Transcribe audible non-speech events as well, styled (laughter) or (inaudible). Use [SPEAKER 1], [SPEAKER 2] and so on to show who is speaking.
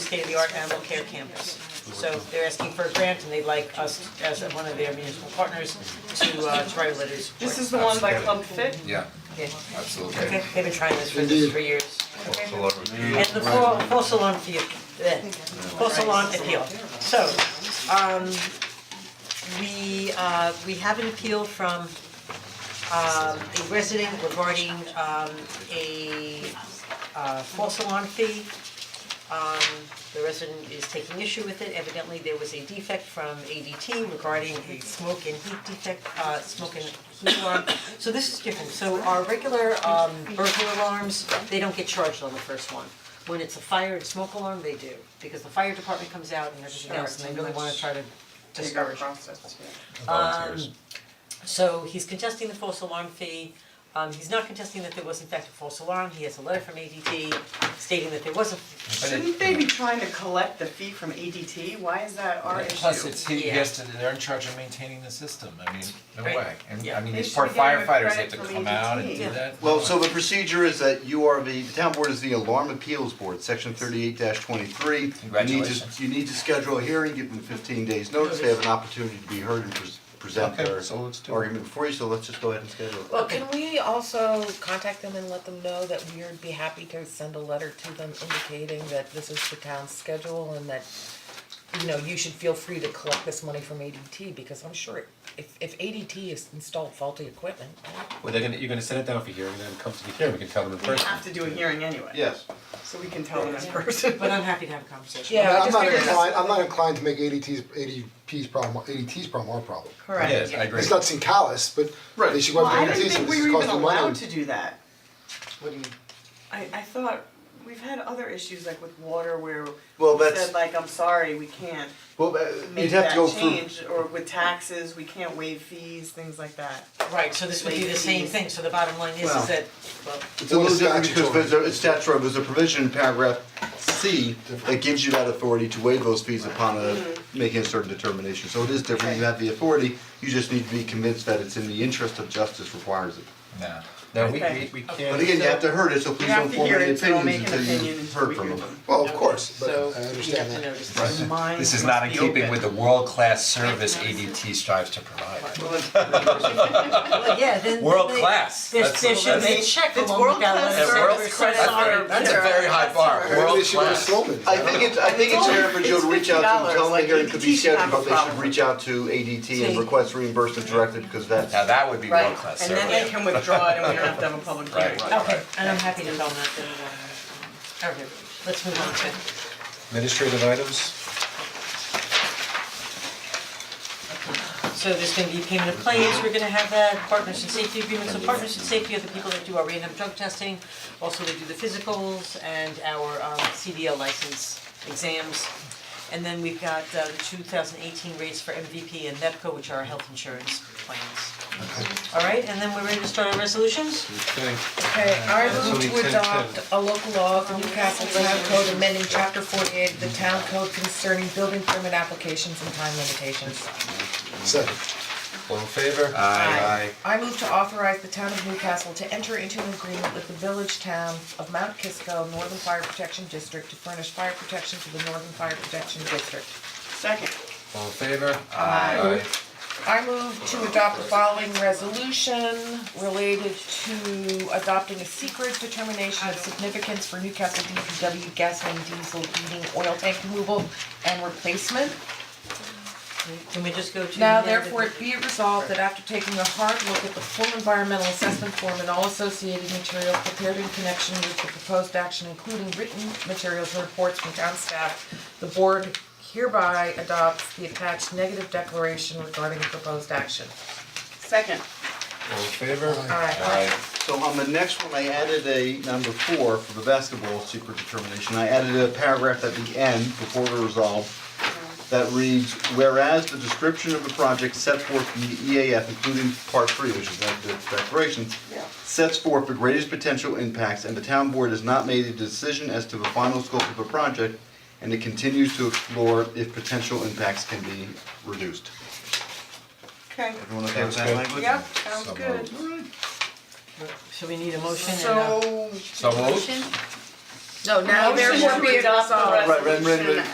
[SPEAKER 1] state-of-the-art animal care campus. So they're asking for a grant and they'd like us as one of their municipal partners to uh to write a letter of support.
[SPEAKER 2] This is the one by Club Fit?
[SPEAKER 3] Yeah,
[SPEAKER 1] Yeah.
[SPEAKER 3] absolutely.
[SPEAKER 1] Okay, they've been trying this for this for years.
[SPEAKER 3] It's a lot of-
[SPEAKER 2] um,
[SPEAKER 1] And the full full salon appeal, eh, full salon appeal. So, um, we, uh, we have an appeal from, um, a resident regarding, um, a, uh, full salon fee. Um, the resident is taking issue with it, evidently there was a defect from ADT regarding a smoke and heat defect, uh, smoke and heat alarm. So this is different, so our regular, um, burglar alarms, they don't get charged on the first one. When it's a fire and smoke alarm, they do, because the fire department comes out and everything else, and they really wanna try to
[SPEAKER 2] Take our
[SPEAKER 1] discourage.
[SPEAKER 2] process, yeah.
[SPEAKER 3] volunteers.
[SPEAKER 1] So he's contesting the false alarm fee. Um, he's not contesting that there was in fact a false alarm. He has a letter from ADT stating that there was a
[SPEAKER 2] Shouldn't they be trying to collect the fee from ADT? Why is that our issue?
[SPEAKER 4] Plus, it's, he
[SPEAKER 1] Yeah.
[SPEAKER 4] has to, they're in charge of maintaining the system, I mean, no
[SPEAKER 1] Right.
[SPEAKER 4] way, and
[SPEAKER 1] Yeah.
[SPEAKER 4] I mean,
[SPEAKER 2] They
[SPEAKER 4] these
[SPEAKER 2] should
[SPEAKER 4] poor
[SPEAKER 2] be getting a
[SPEAKER 4] firefighters
[SPEAKER 2] credit
[SPEAKER 4] have to
[SPEAKER 2] for
[SPEAKER 4] come out and
[SPEAKER 2] ADT.
[SPEAKER 4] do that.
[SPEAKER 5] Well, so the procedure is that you are the, the town board is the alarm appeals board, section thirty-eight twenty-three.
[SPEAKER 3] Congratulations.
[SPEAKER 5] You need to, you need to schedule a hearing, give them fifteen days notice, they have an opportunity to be heard and pres- present
[SPEAKER 3] Okay,
[SPEAKER 5] their
[SPEAKER 3] so let's do it.
[SPEAKER 5] argument before you, so let's just go ahead and schedule it.
[SPEAKER 6] Well, can we also contact them and let them know that we would be happy to send a letter to them indicating that this is the town's schedule and that, you know, you should feel free to collect this money from ADT, because I'm sure if, if ADT has installed faulty equipment,
[SPEAKER 7] Well, they're gonna, you're gonna set it down for hearing, then come to the hearing, we can tell them in
[SPEAKER 2] We
[SPEAKER 7] person.
[SPEAKER 2] have to do a hearing anyway.
[SPEAKER 5] Yes.
[SPEAKER 2] So we can tell them in person.
[SPEAKER 4] (laughs)
[SPEAKER 2] (laughs)
[SPEAKER 1] but I'm happy to have a conversation.
[SPEAKER 6] Yeah,
[SPEAKER 8] I'm
[SPEAKER 6] just
[SPEAKER 8] not
[SPEAKER 6] figured-
[SPEAKER 8] inclined, I'm not inclined to make ADT's, ADP's problem, ADT's problem our problem.
[SPEAKER 2] Correct.
[SPEAKER 3] Yes, I agree.
[SPEAKER 8] It's not seem callous, but they should go
[SPEAKER 2] Well,
[SPEAKER 8] after
[SPEAKER 2] I
[SPEAKER 8] ADT,
[SPEAKER 2] didn't
[SPEAKER 8] so
[SPEAKER 2] think we
[SPEAKER 8] this
[SPEAKER 2] were
[SPEAKER 8] is
[SPEAKER 2] even
[SPEAKER 8] costing them money.
[SPEAKER 2] allowed to do that.
[SPEAKER 8] What do you-
[SPEAKER 2] I I thought, we've had other issues like with water where
[SPEAKER 5] Well,
[SPEAKER 2] we
[SPEAKER 5] that's-
[SPEAKER 2] said like, I'm sorry, we can't
[SPEAKER 5] Well, uh,
[SPEAKER 2] make
[SPEAKER 5] you'd have
[SPEAKER 2] that
[SPEAKER 5] to go through,
[SPEAKER 2] change, or with taxes, we can't waive fees, things like that.
[SPEAKER 1] Right, so this would be the same thing, so the bottom line is is
[SPEAKER 5] Well.
[SPEAKER 1] that, well,
[SPEAKER 5] it's a little
[SPEAKER 8] Well,
[SPEAKER 5] different because
[SPEAKER 8] statutory.
[SPEAKER 5] there's a, it's statutory, there's a provision in paragraph C that gives you that authority to waive those fees upon a, making a certain determination, so it is different, you have the authority, you just need to be convinced that it's in the interest of justice requires it.
[SPEAKER 4] No, no, we
[SPEAKER 2] Okay.
[SPEAKER 4] we we can't.
[SPEAKER 5] But again, you have to hear it, so please
[SPEAKER 2] You have
[SPEAKER 5] don't
[SPEAKER 2] to
[SPEAKER 5] form
[SPEAKER 2] hear
[SPEAKER 5] any
[SPEAKER 2] it, so I'll
[SPEAKER 5] opinions
[SPEAKER 2] make an
[SPEAKER 5] until
[SPEAKER 2] opinion
[SPEAKER 5] you've
[SPEAKER 2] until
[SPEAKER 5] heard
[SPEAKER 2] we
[SPEAKER 5] from
[SPEAKER 2] hear
[SPEAKER 5] them.
[SPEAKER 2] them.
[SPEAKER 8] Well, of course, but I
[SPEAKER 1] so you
[SPEAKER 8] understand
[SPEAKER 1] have to
[SPEAKER 8] that.
[SPEAKER 1] notice.
[SPEAKER 2] Right. Mine
[SPEAKER 4] This is
[SPEAKER 2] must
[SPEAKER 4] not in
[SPEAKER 2] be
[SPEAKER 4] keeping
[SPEAKER 2] open.
[SPEAKER 4] with the world-class service ADT strives to provide.
[SPEAKER 1] Well, yeah, then then
[SPEAKER 4] World
[SPEAKER 1] they-
[SPEAKER 4] class.
[SPEAKER 1] There's,
[SPEAKER 4] That's-
[SPEAKER 1] there should be a
[SPEAKER 4] that's-
[SPEAKER 1] check
[SPEAKER 2] It's
[SPEAKER 1] along with that
[SPEAKER 2] world-class
[SPEAKER 1] letter.
[SPEAKER 2] service.
[SPEAKER 1] Service
[SPEAKER 2] World-class
[SPEAKER 1] credit
[SPEAKER 2] service.
[SPEAKER 1] card.
[SPEAKER 4] That's a very high bar,
[SPEAKER 2] That's
[SPEAKER 8] Maybe they
[SPEAKER 4] world
[SPEAKER 8] should go to
[SPEAKER 4] class.
[SPEAKER 8] Sloman's.
[SPEAKER 5] I think it's, I think it's fair for Joe to reach out to them, tell them the hearing could be
[SPEAKER 2] It's $50,
[SPEAKER 5] scheduled, but they
[SPEAKER 2] like,
[SPEAKER 5] should reach out to ADT and
[SPEAKER 1] See.
[SPEAKER 5] request reimbursement directly, because that's.
[SPEAKER 4] Now, that would be
[SPEAKER 2] Right,
[SPEAKER 4] world-class
[SPEAKER 2] and
[SPEAKER 4] service.
[SPEAKER 2] then they can withdraw it and we don't have to
[SPEAKER 4] (laughs)
[SPEAKER 2] have a public hearing. Oh,
[SPEAKER 4] Right, right, right.
[SPEAKER 1] Okay, and I'm happy to go on that, then, um, okay, let's move on to.
[SPEAKER 7] Administrative items,
[SPEAKER 1] So there's gonna be payment of claims, we're gonna have that, partners in safety agreements, so partners in safety are the people that do our random drug testing. Also, they do the physicals and our um CDL license exams. And then we've got uh the two thousand eighteen rates for MVP and E NEPCO, which are our health insurance plans. Alright, and then we're ready to start our resolutions?
[SPEAKER 7] okay.
[SPEAKER 6] Okay, I
[SPEAKER 7] So we
[SPEAKER 6] move
[SPEAKER 7] tend
[SPEAKER 6] to
[SPEAKER 7] to-
[SPEAKER 6] adopt a local law, the Newcastle Town Code amending chapter forty-eight of the town code concerning building permit applications and time limitations.
[SPEAKER 8] Second.
[SPEAKER 7] All in favor?
[SPEAKER 6] Aye. I move to authorize the town of Newcastle to enter into an agreement with the village town of Mount Kisco Northern Fire Protection District to furnish fire protection to the Northern Fire Protection District.
[SPEAKER 2] Second,
[SPEAKER 7] All in favor?
[SPEAKER 6] Aye. I move to adopt the following resolution related to adopting a secret determination of significance for Newcastle DPW gasoline, diesel, heating, oil tank removal and replacement.
[SPEAKER 1] Can we just go to?
[SPEAKER 6] Now
[SPEAKER 1] the-
[SPEAKER 6] therefore it be it resolved that after taking a hard look at the full environmental assessment form and all associated materials prepared in connection with the proposed action, including written materials and reports from town staff, the board hereby adopts the attached negative declaration regarding the proposed action.
[SPEAKER 2] second.
[SPEAKER 7] All in favor?
[SPEAKER 6] Aye.
[SPEAKER 5] So on the next one, I added a number four for the basketball secret determination, I added a paragraph at the end before we resolve that reads, whereas the description of the project set forth in the EAF, including part three, which is that the declaration, sets forth the greatest potential impacts, and the town board has not made a decision as to the final scope of the project, and it continues to explore if potential impacts can be reduced.
[SPEAKER 2] Okay,
[SPEAKER 5] Everyone okay with that
[SPEAKER 7] Sounds good.
[SPEAKER 5] language?
[SPEAKER 2] yep, sounds
[SPEAKER 7] So
[SPEAKER 2] good.
[SPEAKER 7] moved.
[SPEAKER 1] So we need a motion and a.
[SPEAKER 2] So,
[SPEAKER 4] So moved.
[SPEAKER 9] Motion,
[SPEAKER 10] No, now
[SPEAKER 11] Motion to
[SPEAKER 10] therefore be it
[SPEAKER 11] adopt the
[SPEAKER 10] resolved.
[SPEAKER 6] Right, right, right, right.